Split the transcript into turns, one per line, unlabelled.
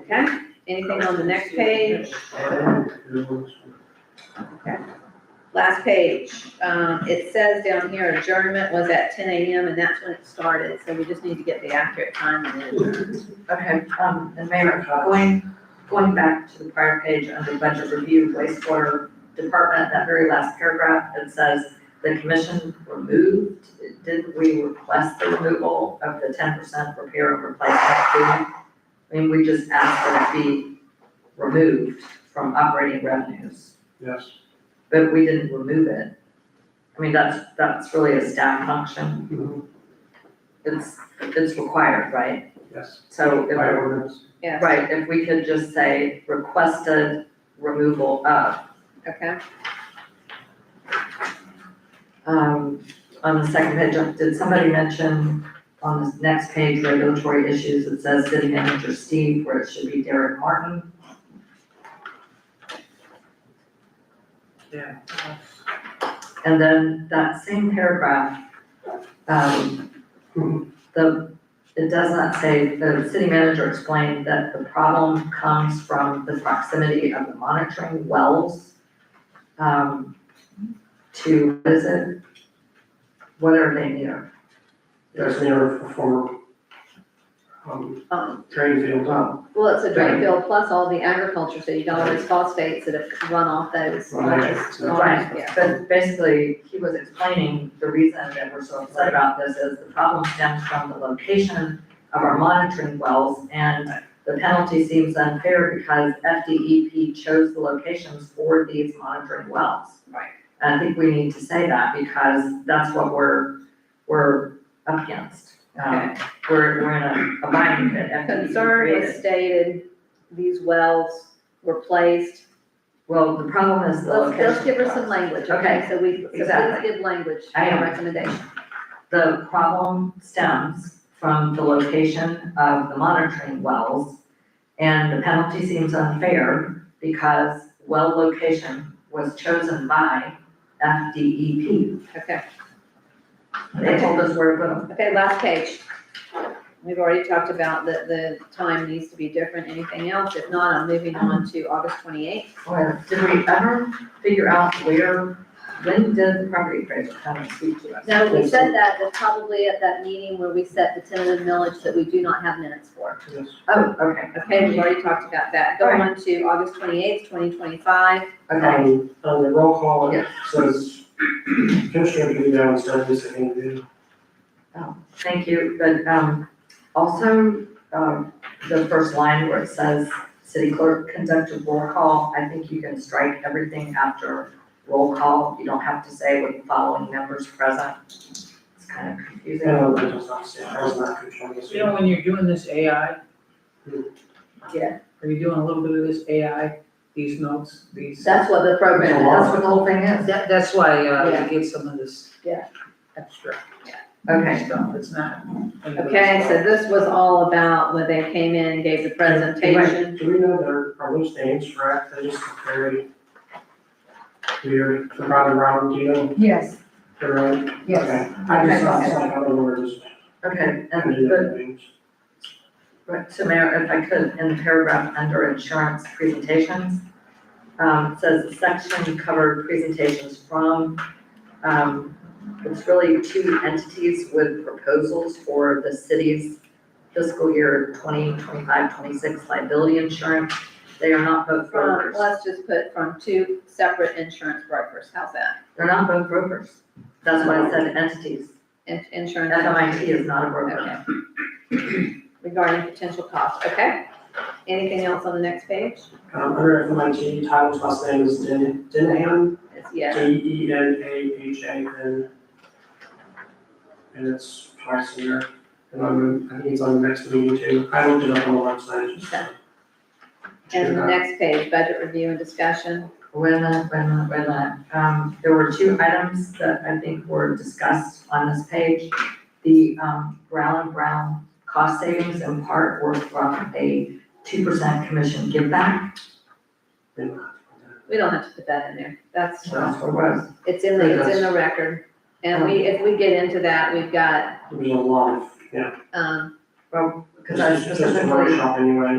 Okay, anything on the next page? Okay. Last page, um, it says down here adjournment was at ten AM and that's when it started, so we just need to get the accurate time and then.
Okay, um, and Mayor, going, going back to the prior page under budget review wastewater department, that very last paragraph, it says the commission removed, didn't we request the removal of the ten percent repair and replacement fee? I mean, we just asked that it be removed from operating revenues,
Yes.
but we didn't remove it. I mean, that's, that's really a staff function,
Mhm.
it's, it's required, right?
Yes.
So if
By ordinance.
Yes,
Right, if we could just say requested removal of,
okay,
um, on the second page, did somebody mention on this next page, regulatory issues, it says city manager Steve, where it should be Derek Martin?
Yeah.
And then that same paragraph, um, the, it does not say, the city manager explained that the problem comes from the proximity of the monitoring wells, um, to, what is it? What are they near?
That's near for former, um,
um,
drain field, huh?
well, it's a drain field plus all the agriculture, so you got all those phosphates that have run off those.
Right.
Right, yeah.
But basically, he was explaining the reason that we're so upset about this is the problem stems from the location of our monitoring wells and the penalty seems unfair because FDEP chose the locations for these monitoring wells.
Right.
And I think we need to say that because that's what we're, we're up against. Um, we're, we're in a bind that FDEP
Concern
created.
was stated, these wells were placed,
Well, the problem is the
let's,
location.
let's give her
of
some
wells.
language,
Okay.
okay, so we, so please
Exactly.
give language
I
and
am.
recommendation.
The problem stems from the location of the monitoring wells, and the penalty seems unfair because well location was chosen by FDEP.
Okay,
They told us where to put them.
okay, last page. We've already talked about that the time needs to be different, anything else, if not, I'm moving on to August twenty-eighth.
Well, did we ever figure out where, when did the property appraiser come and speak to us?
Now, we said that, was probably at that meeting where we set the tentative millage that we do not have minutes for.
Yes.
Oh, okay,
Okay, we've already talked about that, go on to August twenty-eighth, twenty twenty-five,
okay.
Um, on the roll call, it
Yes.
says, Commissioner Goodell down said this and then,
Thank you, but, um, also, um, the first line where it says, city clerk conduct a roll call, I think you can strike everything after roll call, you don't have to say with the following members present. It's kind of
I
confusing.
Uh,
don't know, that was not said, I was not controlling this.
You know, when you're doing this AI.
Yeah.
Are you doing a little bit of this AI, these notes, these?
that's what the program
Program,
is.
that's what the whole thing is,
That, that's why, uh,
Yeah.
to get some of this.
Yeah.
Extra
okay,
stuff, it's not.
Okay, so this was all about when they came in, and gave the presentation.
Do we know there, are those names correct, they just look very weird, the round round deal,
Yes,
they're right?
yes.
Okay. I just saw something, I don't know where it is.
okay,
I
and,
didn't
but,
know the names.
right, so Mayor, if I could, in the paragraph under insurance presentations, um, it says the section covered presentations from, um, it's really two entities with proposals for the city's fiscal year 2025-26 liability insurance. They are not both
From,
brokers.
let's just put from two separate insurance brokers, how's that?
They're not both brokers. That's why I said entities.
In- Insurance.
FMIT is not a broker.
Okay. Regarding potential costs, okay? Anything else on the next page?
Um, under FMIT, Tyler's last name is Den, Denham,
It's
D
yes,
E N A H A N. And it's twice a year, and I'm, I think it's on the next meeting too, I looked it up on the website, just.
Okay. and the next page, budget review and discussion.
Wait a minute, wait a minute, wait a minute. uh, Um, there were two items that I think were discussed on this page. The, um, Brown and Brown cost savings in part were from a two percent commission give back.
We don't have to put that in there, that's,
So That's what it was.
it's in the, it's in the record. And we, if we get into that, we've got,
There's a lot of, yeah,
um,
Well, because I
it's just a
specifically
workshop anyway,